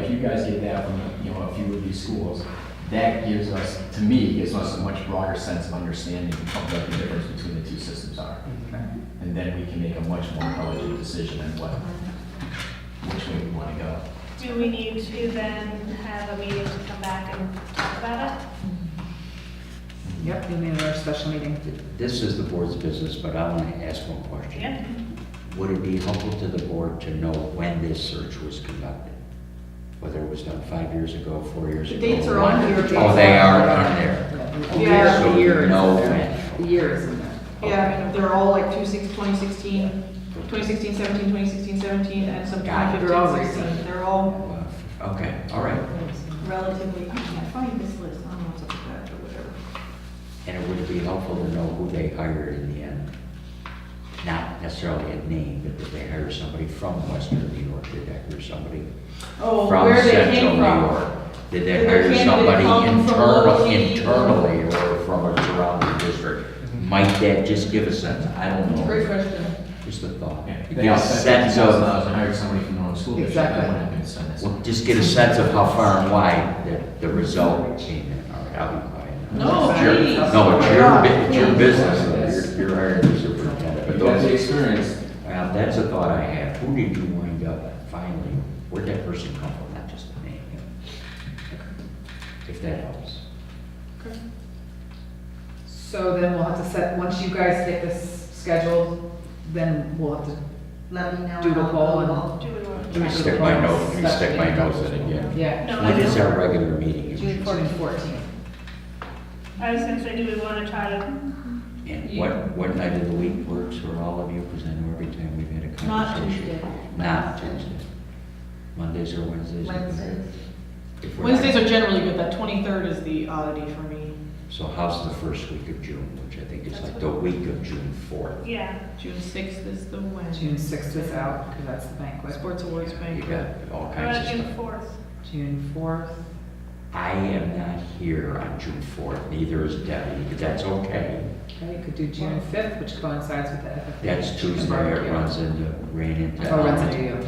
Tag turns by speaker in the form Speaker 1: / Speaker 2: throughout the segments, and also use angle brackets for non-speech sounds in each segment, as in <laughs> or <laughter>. Speaker 1: guys get that from, you know, a few of these schools, that gives us, to me, gives us a much broader sense of understanding of what the difference between the two systems are. And then we can make a much more intelligent decision on what, which way we want to go.
Speaker 2: Do we need to then have a meeting to come back and talk about it?
Speaker 3: Yep, you mean our special meeting.
Speaker 4: This is the board's business, but I want to ask one question.
Speaker 2: Yeah.
Speaker 4: Would it be helpful to the board to know when this search was conducted? Whether it was done five years ago, four years
Speaker 3: The
Speaker 4: ago?
Speaker 3: dates are
Speaker 4: one-
Speaker 3: on here. dates
Speaker 4: Oh, they are
Speaker 3: on
Speaker 4: on there.
Speaker 3: Yeah,
Speaker 4: Okay,
Speaker 3: Yeah,
Speaker 4: so
Speaker 3: the
Speaker 4: we
Speaker 3: year is in
Speaker 4: know
Speaker 3: there.
Speaker 4: when.
Speaker 3: The year is in there.
Speaker 5: Yeah, they're all like 26 2016, 2016, 17, 2016, 17, and some
Speaker 4: Got it.
Speaker 5: 2015,
Speaker 3: They're all
Speaker 5: 16. They're all
Speaker 4: Wow, Uh, Okay, all right.
Speaker 5: relatively, I can't find this list, I don't know what's up with that or whatever.
Speaker 4: And it would be helpful to know who they hired in the end. Not necessarily a name, but did they hire somebody from Western New York? Did they hire somebody
Speaker 5: Oh,
Speaker 4: from
Speaker 5: where they
Speaker 4: Central
Speaker 5: came
Speaker 4: New
Speaker 5: from.
Speaker 4: York? Did they
Speaker 5: Did their
Speaker 4: hire
Speaker 5: candidate
Speaker 4: somebody
Speaker 5: come from
Speaker 4: internal,
Speaker 5: locally?
Speaker 4: internally or from a surrounding district?
Speaker 1: Mm-hmm.
Speaker 4: Might that just give a sense? I don't
Speaker 5: Great
Speaker 4: know.
Speaker 5: question.
Speaker 4: Just a thought.
Speaker 1: Yeah, They
Speaker 4: Give a
Speaker 1: all spent
Speaker 4: sense
Speaker 1: fifty thousand
Speaker 4: of,
Speaker 1: dollars and hired somebody from their own school district, that
Speaker 3: Exactly.
Speaker 1: wouldn't have been spent this.
Speaker 4: well, just get a sense of how far and wide the, the result came in. All right, I'll be quiet. now.
Speaker 5: No,
Speaker 4: It's your-
Speaker 5: please.
Speaker 4: No, it's your, bu- it's your
Speaker 5: Please.
Speaker 4: business. You're, you're hiring the superintendent. But
Speaker 1: You have the
Speaker 4: those,
Speaker 1: experience,
Speaker 4: well, that's a thought I have. Who did you wind up finally? Where'd that person come from? Not just the name. If that helps.
Speaker 3: So then we'll have to set, once you guys get this scheduled, then we'll have to,
Speaker 5: Let me know.
Speaker 3: Do the poll and-
Speaker 2: Do we want
Speaker 4: Let me
Speaker 3: Right.
Speaker 2: to?
Speaker 4: stick my nose, let me stick my nose in again.
Speaker 3: yeah.
Speaker 2: No,
Speaker 4: When
Speaker 2: I
Speaker 4: is
Speaker 2: don't.
Speaker 4: our regular meeting?
Speaker 3: June fourteenth.
Speaker 2: I was gonna say, do we want to try to,
Speaker 4: And what, what night of the week works for all of you, because I know every time we've had a
Speaker 5: Not
Speaker 4: conversation.
Speaker 5: Tuesday.
Speaker 4: Not Tuesday. Mondays or Wednesdays? are good.
Speaker 5: Wednesdays.
Speaker 4: If we're not-
Speaker 5: Wednesdays are generally good, that 23rd is the oddity for me,
Speaker 4: So how's the first week of June, which I think is
Speaker 2: That's
Speaker 4: like
Speaker 2: what-
Speaker 4: the week of June fourth?
Speaker 2: yeah,
Speaker 5: June 6th is the Wednesday.
Speaker 3: June sixth is out, because that's the banquet.
Speaker 5: Sports Awards
Speaker 4: You
Speaker 5: Banquet.
Speaker 4: got all
Speaker 2: how about
Speaker 4: kinds of
Speaker 2: June
Speaker 4: stuff.
Speaker 2: fourth?
Speaker 3: June fourth.
Speaker 4: I am not here on June fourth, neither is Debbie, but that's okay.
Speaker 3: Okay, you could do June fifth, which coincides with the FFA.
Speaker 4: That's Tuesday, it
Speaker 3: barbecue.
Speaker 4: runs into, ran into.
Speaker 3: Oh, runs into you.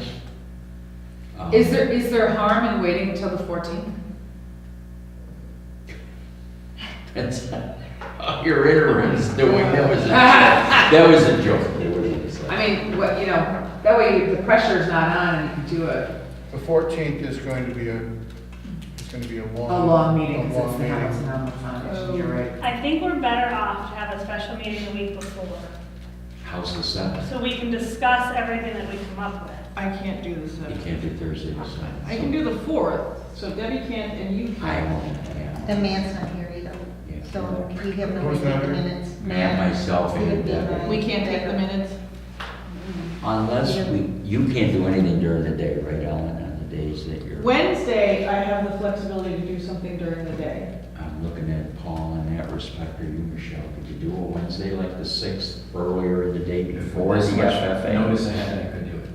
Speaker 4: Um,
Speaker 3: Is there, is there harm in waiting until the fourteenth?
Speaker 4: <laughs> That's, oh, your ignorance, the way, that was,
Speaker 3: <laughs>
Speaker 4: a- that was a joke. It was a-
Speaker 3: I mean, what, you know, that way the pressure's not on and you can do it.
Speaker 6: The fourteenth is going to be a, it's going to be a long.
Speaker 3: A long meeting,
Speaker 6: a
Speaker 3: because it's
Speaker 6: long
Speaker 3: the
Speaker 6: meeting.
Speaker 3: House and Home Foundation, you're right.
Speaker 2: I think we're better off to have a special meeting the week before,
Speaker 4: How's the seventh?
Speaker 2: so we can discuss everything that we come up with.
Speaker 5: I can't do the
Speaker 4: You
Speaker 5: 7th.
Speaker 4: can't do Thursday or Sunday.
Speaker 5: I can do the 4th, so Debbie can't and you
Speaker 4: I
Speaker 5: can't.
Speaker 4: won't,
Speaker 7: The
Speaker 4: yeah.
Speaker 7: man's not here either,
Speaker 4: Yeah.
Speaker 7: so we have no
Speaker 6: Who's
Speaker 7: way to take
Speaker 6: not
Speaker 7: the
Speaker 6: here?
Speaker 7: minutes.
Speaker 4: Man, myself,
Speaker 7: He would
Speaker 4: and
Speaker 7: be
Speaker 4: Debbie.
Speaker 7: my-
Speaker 5: We can't take the minutes.
Speaker 4: Unless we, you can't do anything during the day, right, Ellen, on the days that you're,
Speaker 5: Wednesday, I have the flexibility to do something during the day.
Speaker 4: I'm looking at Paul in that respect, or you, Michelle, could you do a Wednesday like the sixth, earlier in the day
Speaker 1: If
Speaker 4: before the
Speaker 1: there's much notice
Speaker 4: FFA?
Speaker 1: ahead, I could do it.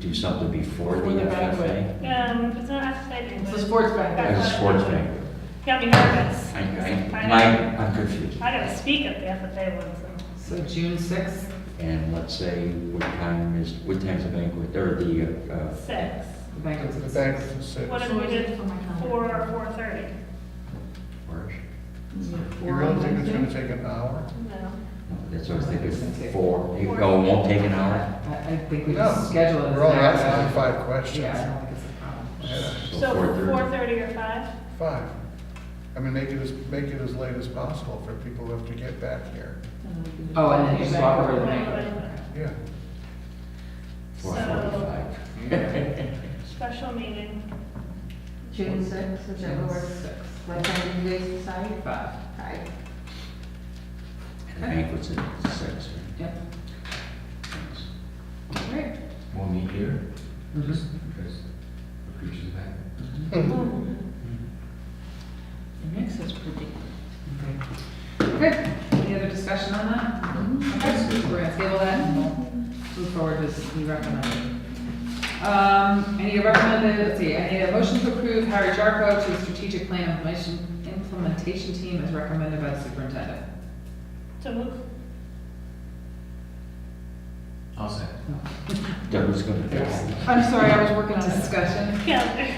Speaker 4: Do something before
Speaker 5: Before
Speaker 4: the
Speaker 5: the
Speaker 4: FFA?
Speaker 5: banquet.
Speaker 2: Um, it's not exciting,
Speaker 5: It's a
Speaker 2: but
Speaker 5: sports banquet.
Speaker 4: As a sports thing.
Speaker 2: got me nervous.
Speaker 4: I, I,
Speaker 2: don't-
Speaker 4: my, I'm confused.
Speaker 2: I didn't speak at the FFA one, so.
Speaker 3: So June sixth,
Speaker 4: And let's say, what time is, what time's the banquet, or the, uh, uh,
Speaker 2: Six.
Speaker 3: the banquet's
Speaker 6: The
Speaker 3: at
Speaker 6: bank
Speaker 3: six.
Speaker 6: is at six.
Speaker 2: What if we did four or four thirty?
Speaker 4: where is it?
Speaker 6: You really think it's going to take an hour?
Speaker 2: No.
Speaker 4: No, That's what I was thinking,
Speaker 3: Six.
Speaker 4: four, you go, it won't take an hour?
Speaker 3: I, I think we
Speaker 6: No,
Speaker 3: just schedule it. as
Speaker 6: We're only
Speaker 3: an hour.
Speaker 6: asking five
Speaker 3: Yeah, I
Speaker 6: questions.
Speaker 3: don't think it's a problem.
Speaker 6: Yeah,
Speaker 2: So four
Speaker 4: 4:30.
Speaker 2: thirty or five?
Speaker 6: Five. I mean, make it as, make it as late as possible for people who have to get back here.
Speaker 3: Oh, and then you just walk over to the banquet.
Speaker 2: So,
Speaker 6: Yeah.
Speaker 4: Four forty-five.
Speaker 2: special meeting,
Speaker 7: June sixth, is that
Speaker 3: June
Speaker 7: where,
Speaker 3: sixth.
Speaker 7: what time do you guys decide?
Speaker 3: Five,
Speaker 7: Five.
Speaker 4: And the banquet's at six, right?
Speaker 3: yep, all right.
Speaker 1: We'll meet here,
Speaker 3: Mhm.
Speaker 1: just because the preacher's back.
Speaker 6: <laughs>
Speaker 5: It makes us pretty.
Speaker 3: Okay, any other discussion on that? Okay, so we're gonna table that and we'll move forward as we recommend. Um, any recommended, let's see, I need a motion to approve Harry Jarko to the strategic plan implementation, implementation team as recommended by the superintendent.
Speaker 2: so move.
Speaker 1: I'll say.
Speaker 4: Deborah's gonna.
Speaker 5: I'm sorry, I was working on it.
Speaker 3: Discussion?
Speaker 2: Yeah.